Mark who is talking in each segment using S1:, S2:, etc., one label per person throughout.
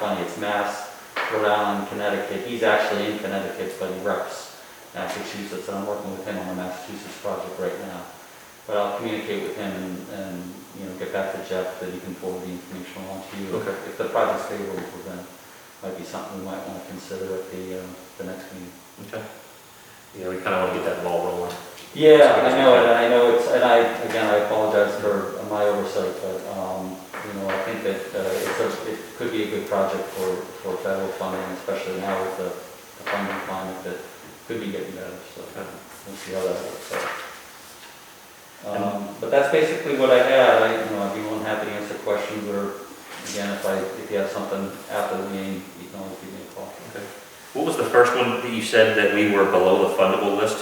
S1: Funny, it's Mass, Rhode Island, Connecticut, he's actually in Connecticut, but he reps Massachusetts, and I'm working with him on a Massachusetts project right now. But I'll communicate with him and, and, you know, get back to Jeff, that he can forward the information along to you.
S2: Okay.
S1: If the project's favorable for them, might be something we might wanna consider at the, um, the next meeting.
S2: Okay. Yeah, we kind of want to get that ball rolling.
S1: Yeah, I know, and I know it's, and I, again, I apologize for my oversight, but, um, you know, I think that, uh, it's a, it could be a good project for, for federal funding, especially now with the, the funding climate that could be getting better, so we'll see how that works out. Um, but that's basically what I had, I, you know, I'd be more than happy to answer questions, or, again, if I, if you have something after the meeting, you can always give me a call.
S2: What was the first one that you said that we were below the fundable list?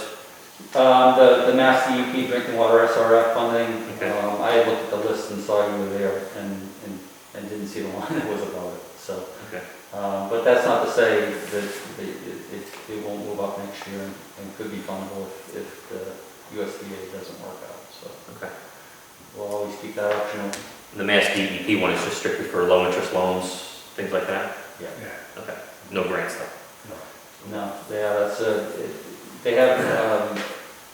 S1: Um, the, the Mass DEP drinking water SRF funding,
S2: Okay.
S1: um, I had looked at the list and saw you were there and, and, and didn't see the one that was above it, so.
S2: Okay.
S1: Um, but that's not to say that, that it, it, it won't move up next year and, and could be fundable if, if the USDA doesn't work out, so.
S2: Okay.
S1: We'll always keep that option open.
S2: The Mass DEP one is just strictly for low-interest loans, things like that?
S1: Yeah.
S2: Okay, no grants though?
S1: No, yeah, that's a, it- they have, um,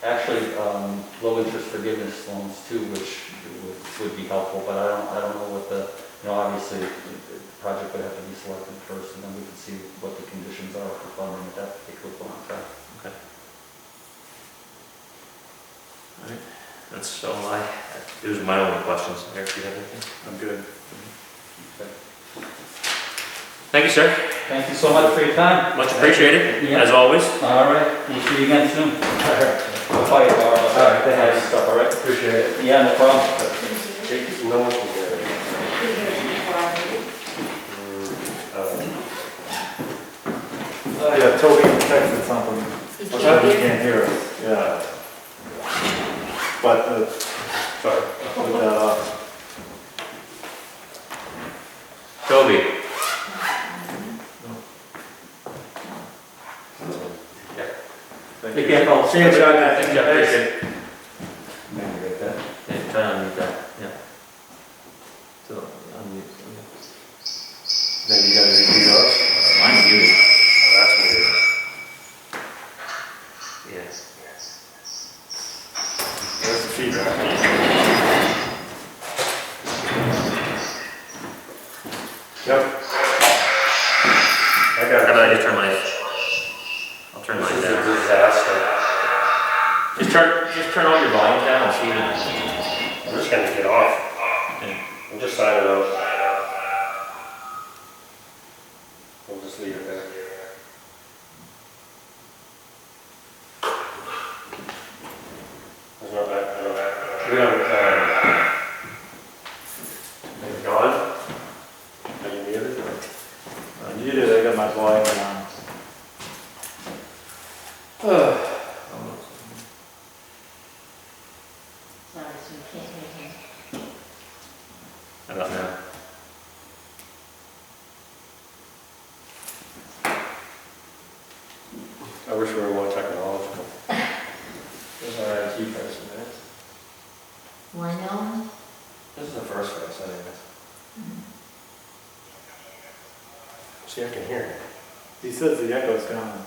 S1: actually, um, low interest forgiveness loans too, which would, would be helpful, but I don't, I don't know what the, you know, obviously, the the project would have to be selected first, and then we can see what the conditions are for funding at that particular point in time.
S2: That's so I, those are my only questions. Eric, do you have anything?
S3: I'm good.
S2: Thank you, sir.
S1: Thank you so much for your time.
S2: Much appreciated,
S1: Yeah.
S2: as always.
S1: All right, we'll see you again soon. We'll fight it, all right?
S3: All right, thanks.
S1: Nice Stuff, all right?
S3: Appreciate it.
S1: Yeah, no problem.
S3: Thank you. No one can hear it. Uh, Yeah, Toby texted something. He can't hear us, yeah. But, uh, sorry, uh, I'll put that off.
S2: Toby?
S3: Thank
S2: Take
S3: you.
S2: care, Paul.
S3: See you, John.
S2: Thank you, I appreciate it.
S3: Man, you got that?
S2: Yeah, try to unmute that, yeah. So, unmute.
S3: Then you gotta repeat us.
S2: Mine's muted.
S3: That's weird.
S2: Yes.
S3: There's the feedback. Yep. I
S2: How
S3: got it.
S2: about I just turn my, I'll turn mine down.
S3: disaster.
S2: Just turn, just turn all your volume down and see.
S3: I'm just gonna get off. I'm just signing off. We'll just leave it there. There's no back, no back. We don't, um. Are you gone? Are you muted? I'm muted, I got my um, volume on.
S4: Sorry, so you can't hear him.
S2: How about now?
S3: I wish we were more technological. This is our IT person, man.
S4: Why no?
S3: This is the first race, anyways. See, I can hear it. He says the echo's gone.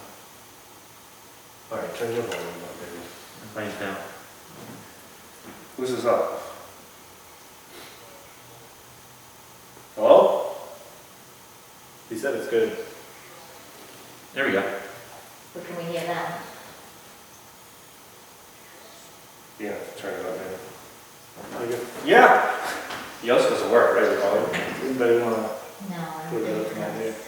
S3: All right, turn your volume up, baby.
S2: Mine's down.
S3: Who's this up? Hello? He said it's good.
S2: There we go.
S4: What can we hear now?
S3: Yeah, turn it up, baby. Yeah! Yours doesn't work, right, your volume? Anybody wanna?
S4: No, I
S3: We're
S4: don't
S3: gonna
S4: think
S3: look at
S4: it
S3: it.
S4: does.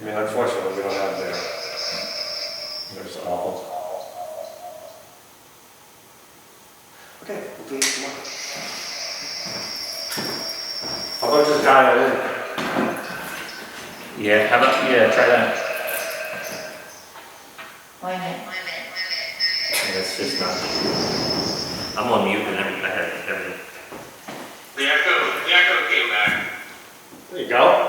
S3: I mean, unfortunately, we don't have that. They're just awful. Okay, we'll do it tomorrow. How about just dial in?
S2: Yeah, how about, yeah, try that.
S4: Wait a minute.
S2: Yeah, it's just not. I'm on mute and everything, I had everything.
S5: The echo, the echo came back.
S3: There you go.